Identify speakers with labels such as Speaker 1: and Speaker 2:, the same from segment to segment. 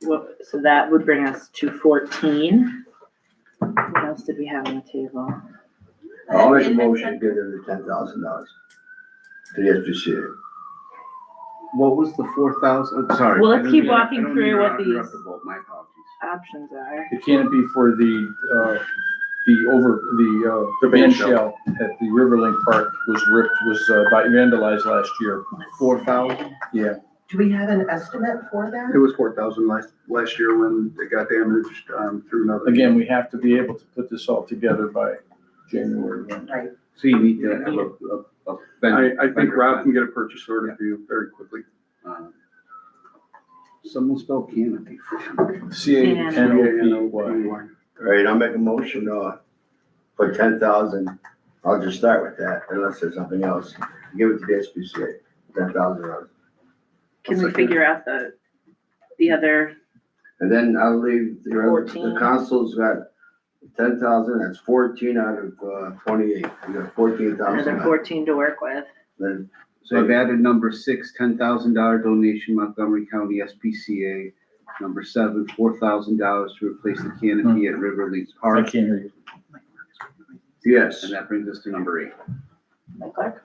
Speaker 1: So that would bring us to fourteen. What else did we have on the table?
Speaker 2: I'll make a motion to give them the ten thousand dollars to the SPCA.
Speaker 3: What was the four thousand, sorry.
Speaker 1: Well, let's
Speaker 3: I don't
Speaker 1: keep
Speaker 3: mean to- I
Speaker 1: walking
Speaker 3: don't mean to
Speaker 1: through what
Speaker 3: interrupt you,
Speaker 1: these-
Speaker 3: but My apologies.
Speaker 1: Options are,
Speaker 4: The canopy for the, uh, the over, the, uh,
Speaker 2: The
Speaker 4: ban
Speaker 2: band shell.
Speaker 4: shell at the Riverlink Park was ripped, was uh, by- vandalized last year.
Speaker 3: Four thousand?
Speaker 5: Do we have an estimate for
Speaker 3: It
Speaker 5: that?
Speaker 3: was four thousand last, last year when it got damaged, um, through another.
Speaker 4: Again, we have to be able to put this all together by January one.
Speaker 5: Right.
Speaker 6: So you need to have a, a, a vendor.
Speaker 3: I, I think
Speaker 6: vendor
Speaker 3: Rob
Speaker 6: plan.
Speaker 3: can get a purchase order for you very quickly.
Speaker 6: Um, Someone spell canopy.
Speaker 4: C A N O P Y.
Speaker 3: Anyway.
Speaker 2: All right, I'll make a motion, uh, for ten thousand. I'll just start with that unless there's something else. Give it to the SPCA, ten thousand dollars.
Speaker 1: can we
Speaker 3: second.
Speaker 1: figure out the, the other,
Speaker 2: And then I'll leave, the other- the
Speaker 1: 14.
Speaker 2: council's got ten thousand, that's fourteen out of, uh, twenty-eight. We got fourteen
Speaker 1: another
Speaker 2: thousand.
Speaker 1: fourteen to work with?
Speaker 2: Then,
Speaker 6: So I've added number six, ten thousand dollar donation Montgomery County SPCA. Number seven, four thousand dollars to replace the canopy at River Lakes
Speaker 4: I
Speaker 6: Park.
Speaker 4: can't hear you.
Speaker 2: yes.
Speaker 6: And that brings us to number eight.
Speaker 1: My clerk?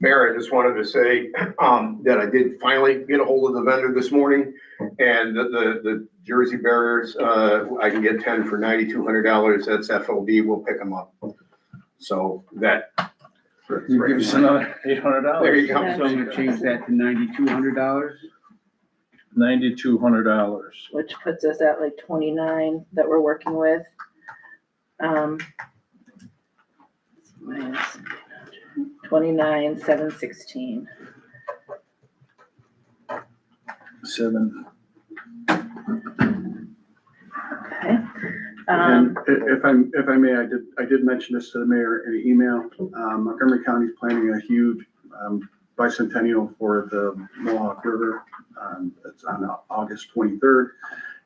Speaker 7: Mayor, I just wanted to say um, that I did finally get a hold of the vendor this morning, and the, the the Jersey barriers, uh, I can get ten for ninety-two hundred dollars, that's FOB, we'll pick them up. So that.
Speaker 4: You give us another eight hundred dollars.
Speaker 7: There you go.
Speaker 6: So I'm gonna change that to ninety-two hundred dollars.
Speaker 4: Ninety-two hundred dollars.
Speaker 1: Which puts us at like twenty-nine that we're working with. Um. minus Twenty-nine, seven sixteen.
Speaker 4: Seven.
Speaker 1: Okay.
Speaker 3: And
Speaker 1: Um,
Speaker 3: i- if I'm, if I may, I did, I did mention this to the mayor in an email. Um, Montgomery County's planning a huge um, bicentennial for the Mohawk River. Um, That's on Au- August 23rd.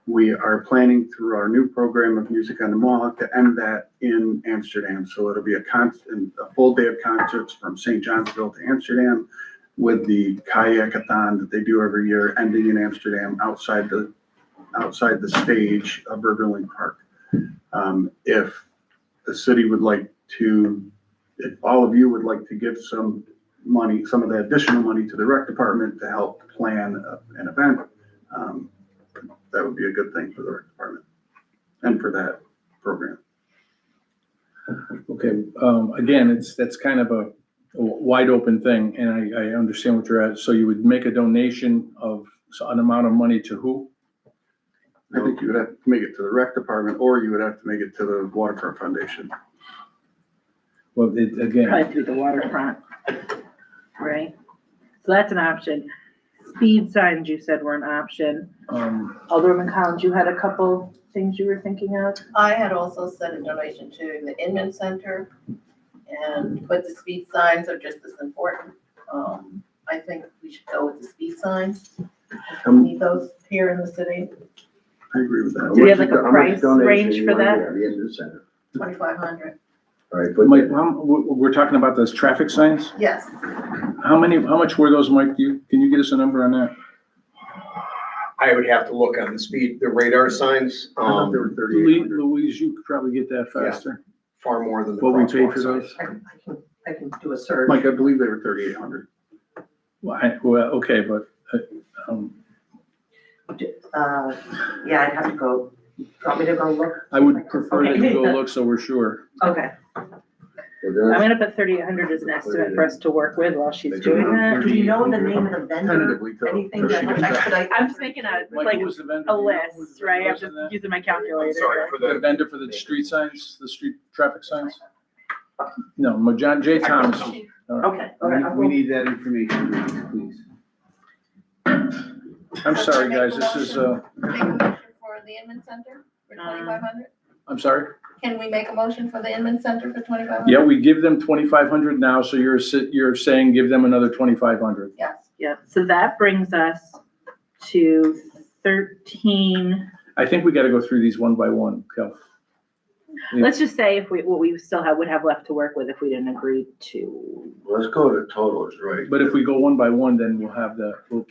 Speaker 3: We are planning through our new program of Music on the Mohawk to end that in Amsterdam. So it'll be a constant, a full day of concerts from St. Johnsville to Amsterdam with the kayakathon that they do every year, ending in Amsterdam outside the, outside the stage of Riverling Park. Um, if the city would like to, if all of you would like to give some money, some of the additional money to the rec department to help plan a- an event, um, that would be a good thing for the rec department and for that program.
Speaker 4: Okay, um, again, it's, that's kind of a wide open thing, and I, I understand what you're at. So you would make a donation of an amount of money to who?
Speaker 3: I think you would have to make it to the rec department or you would have to make it to the waterfront foundation.
Speaker 4: Well, it, again,
Speaker 1: probably through the waterfront, right? So that's an option. Speed signs you said were an option.
Speaker 4: um,
Speaker 1: Alderman Collins, you had a couple things you were thinking of?
Speaker 5: I had also sent a donation to the Inman Center, and, but the speed signs are just as important. Um, I think we should go with the speed signs. We
Speaker 3: Um,
Speaker 5: need those here in the city,
Speaker 3: I agree with that.
Speaker 1: Do we have like a
Speaker 2: How much
Speaker 1: price
Speaker 2: donation
Speaker 1: range
Speaker 2: you
Speaker 1: for
Speaker 2: wanna
Speaker 1: that?
Speaker 2: give The Indian Center.
Speaker 5: twenty-five hundred.
Speaker 2: All right, but
Speaker 4: but Mike, how, we, we're talking about those traffic signs?
Speaker 5: Yes,
Speaker 4: How many, how much were those, Mike? Do you, can you get us a number on that?
Speaker 7: I would have to look on the speed, the radar signs,
Speaker 3: I thought there
Speaker 7: um,
Speaker 3: were
Speaker 4: Lee-
Speaker 3: 3,800.
Speaker 4: Louise, you could probably get that faster.
Speaker 7: far more than the
Speaker 4: What we paid for
Speaker 7: crosswalk signs.
Speaker 4: those?
Speaker 5: I can, I can- I can do a search.
Speaker 3: Mike, I believe they were thirty-eight hundred.
Speaker 4: Well, I, well, okay, but, uh, um,
Speaker 5: Uh, yeah, I'd have to go, do you want me to go look?
Speaker 4: I would prefer that you go look so we're sure.
Speaker 1: Okay. I'm gonna put thirty-eight hundred as an estimate for us to work with while she's doing that.
Speaker 5: Do you know the name of the vendor?
Speaker 3: Tentatively. though.
Speaker 5: Anything that will expedite?
Speaker 1: I'm just making a,
Speaker 4: Mike,
Speaker 1: like,
Speaker 4: who was the
Speaker 1: a
Speaker 4: vendor? Do you know who was
Speaker 1: list,
Speaker 4: the
Speaker 1: right? I'm
Speaker 4: person
Speaker 1: just
Speaker 4: that-
Speaker 1: using my
Speaker 7: I'm Sorry
Speaker 1: calculator.
Speaker 7: for
Speaker 4: The
Speaker 7: the,
Speaker 4: vendor for the street signs, the street traffic signs? No, Ma- John J. Thomas.
Speaker 1: Okay, okay.
Speaker 6: We- We need that information, please.
Speaker 4: I'm sorry, guys, this is, uh,
Speaker 8: Make a motion for the Inman Center for
Speaker 5: Uh,
Speaker 8: twenty-five hundred?
Speaker 4: I'm sorry.
Speaker 8: Can we make a motion for the Inman Center for twenty-five hundred?
Speaker 4: Yeah, we give them twenty-five hundred now, so you're, si- you're saying give them another twenty-five hundred.
Speaker 8: Yes.
Speaker 1: Yeah, so that brings us to thirteen.
Speaker 4: I think we gotta go through these one by one, Kel.
Speaker 1: Let's just say if we, what we still have, would have left to work with if we didn't agree to
Speaker 2: Let's go to totals, right?
Speaker 4: But if we go one by one, then we'll have the, we'll